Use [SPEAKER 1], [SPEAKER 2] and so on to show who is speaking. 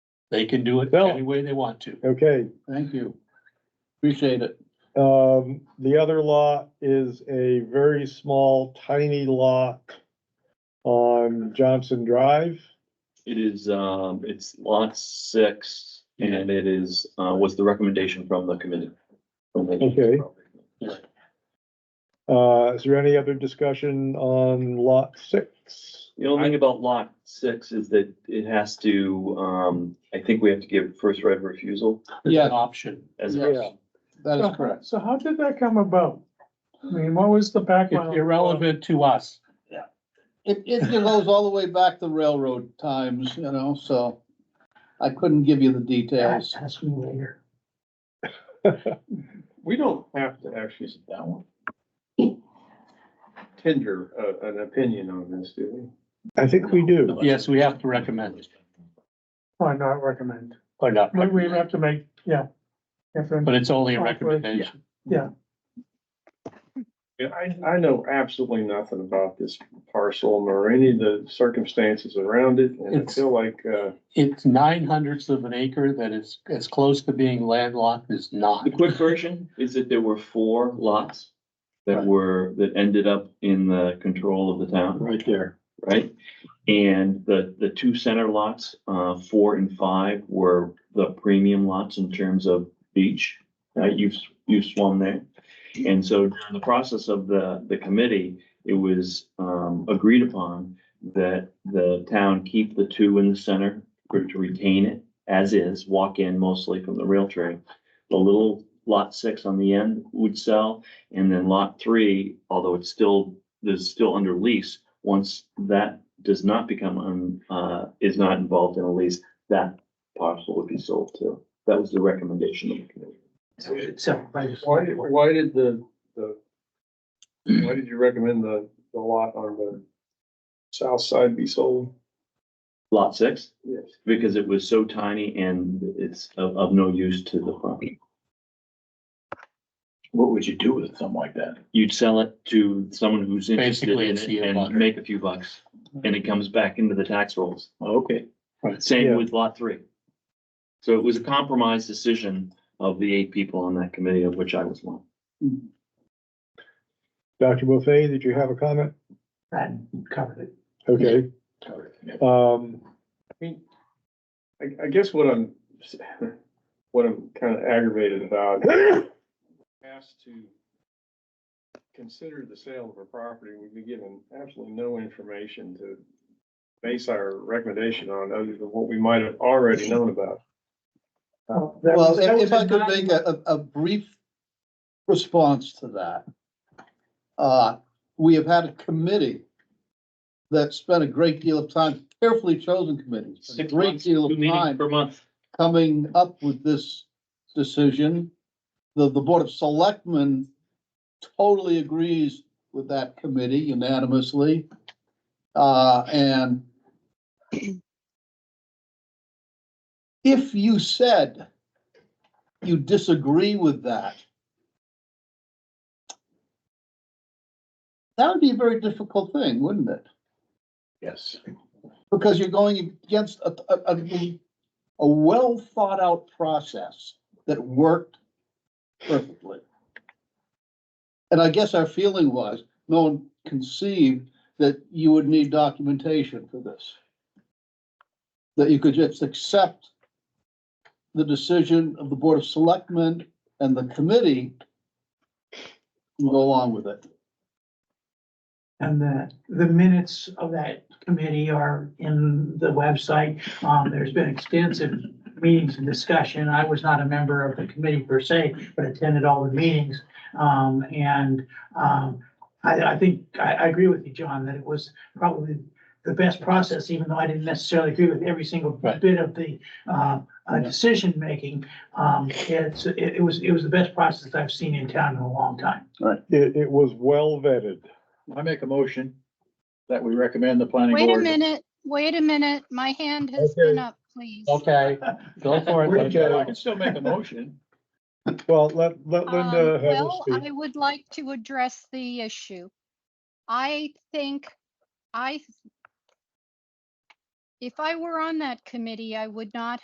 [SPEAKER 1] They can do it
[SPEAKER 2] Well-
[SPEAKER 1] any way they want to.
[SPEAKER 2] Okay,
[SPEAKER 1] Thank you. Appreciate it.
[SPEAKER 2] um, the other lot is a very small, tiny lot on Johnson Drive.
[SPEAKER 3] It is, um, it's lot six and it is, uh, was the recommendation from the committee. from the-
[SPEAKER 2] Okay. Uh, is there any other discussion on lot six?
[SPEAKER 3] The only thing about lot six is that it has to, um, I think we have to give first right of refusal
[SPEAKER 1] It's an option.
[SPEAKER 3] as.
[SPEAKER 2] Yeah.
[SPEAKER 3] a
[SPEAKER 1] That
[SPEAKER 4] So- So how did that come about? I mean, what was the
[SPEAKER 1] It's
[SPEAKER 4] background?
[SPEAKER 1] irrelevant to us.
[SPEAKER 5] It, it goes all the way back to railroad times, you know, so I couldn't give you the details.
[SPEAKER 4] Ask me later.
[SPEAKER 6] We don't have to actually sit down. Tender, uh, an opinion on this, do we?
[SPEAKER 2] I think we do.
[SPEAKER 1] Yes, we have to recommend it,
[SPEAKER 4] Why not recommend?
[SPEAKER 1] or not,
[SPEAKER 4] We, we have to make, yeah. If then-
[SPEAKER 1] but it's only a recommendation.
[SPEAKER 6] I, I know absolutely nothing about this parcel nor any of the circumstances around it, and I
[SPEAKER 1] It's-
[SPEAKER 6] feel like, uh,
[SPEAKER 1] It's nine hundredths of an acre that is as close to being landlocked as not.
[SPEAKER 3] The quick version is that there were four lots that were, that ended up in the control of the town.
[SPEAKER 1] Right there.
[SPEAKER 3] right? And the, the two center lots, uh, four and five were the premium lots in terms of beach. Uh, you've, you've swum there. And so during the process of the, the committee, it was, um, agreed upon that the town keep the two in the center or to retain it as is, walk in mostly from the rail trail. The little lot six on the end would sell, and then lot three, although it's still, there's still under lease, once that does not become, um, uh, is not involved in a lease, that parcel would be sold too. That was the recommendation of the committee.
[SPEAKER 6] why, did- why did the, the, why did you recommend the, the lot on the south side be sold?
[SPEAKER 3] Lot six,
[SPEAKER 6] Yes.
[SPEAKER 3] because it was so tiny and it's of, of no use to the property.
[SPEAKER 1] What would you do with something like that?
[SPEAKER 3] You'd sell it to someone who's interested
[SPEAKER 1] Basically,
[SPEAKER 3] in
[SPEAKER 1] it's the
[SPEAKER 3] it and
[SPEAKER 1] abutter.
[SPEAKER 3] make a few bucks, and it comes back into the tax rolls.
[SPEAKER 1] Okay.
[SPEAKER 3] Same
[SPEAKER 2] Yeah.
[SPEAKER 3] with lot three. So it was a compromise decision of the eight people on that committee, of which I was one.
[SPEAKER 2] Dr. Buffet, did you have a comment?
[SPEAKER 4] That covered it.
[SPEAKER 2] Okay, um,
[SPEAKER 6] I, I guess what I'm, what I'm kind of aggravated about has to consider the sale of a property, we'd be given absolutely no information to base our recommendation on other than what we might have already known about.
[SPEAKER 4] Oh,
[SPEAKER 5] Well, if if I could make a, a a brief response to that. Uh, we have had a committee that spent a great deal of time, carefully chosen committee, a
[SPEAKER 3] Six
[SPEAKER 5] great
[SPEAKER 3] months,
[SPEAKER 5] deal
[SPEAKER 3] two
[SPEAKER 5] of
[SPEAKER 3] meetings
[SPEAKER 5] time
[SPEAKER 3] Per month.
[SPEAKER 5] coming up with this decision. The, the Board of Selectmen totally agrees with that committee unanimously. Uh, and if you said you disagree with that, that would be a very difficult thing, wouldn't it?
[SPEAKER 1] Yes.
[SPEAKER 5] Because you're going against a, a, a, a well thought out process that worked perfectly. And I guess our feeling was, no one conceived that you would need documentation for this. That you could just accept the decision of the Board of Selectmen and the committee and go along with it.
[SPEAKER 7] And the, the minutes of that committee are in the website. Um, there's been extensive meetings and discussion. I was not a member of the committee per se, but attended all the meetings. Um, and, um, I, I think, I, I agree with you, John, that it was probably the best process, even though I didn't necessarily agree with every single
[SPEAKER 1] Right.
[SPEAKER 7] bit of the, uh, uh, decision-making. Um, it's, it, it was, it was the best process I've seen in town in a long time.
[SPEAKER 2] it, it was well vetted.
[SPEAKER 1] I make a motion that we recommend the planning
[SPEAKER 8] Wait a minute, wait a minute, my hand has been up, please.
[SPEAKER 1] Okay, go for it.
[SPEAKER 2] Okay. I
[SPEAKER 1] can still make a motion.
[SPEAKER 2] Well, let, let
[SPEAKER 8] Um,
[SPEAKER 2] Linda have a
[SPEAKER 8] Well,
[SPEAKER 2] speak.
[SPEAKER 8] I would like to address the issue. I think, I, if I were on that committee, I would not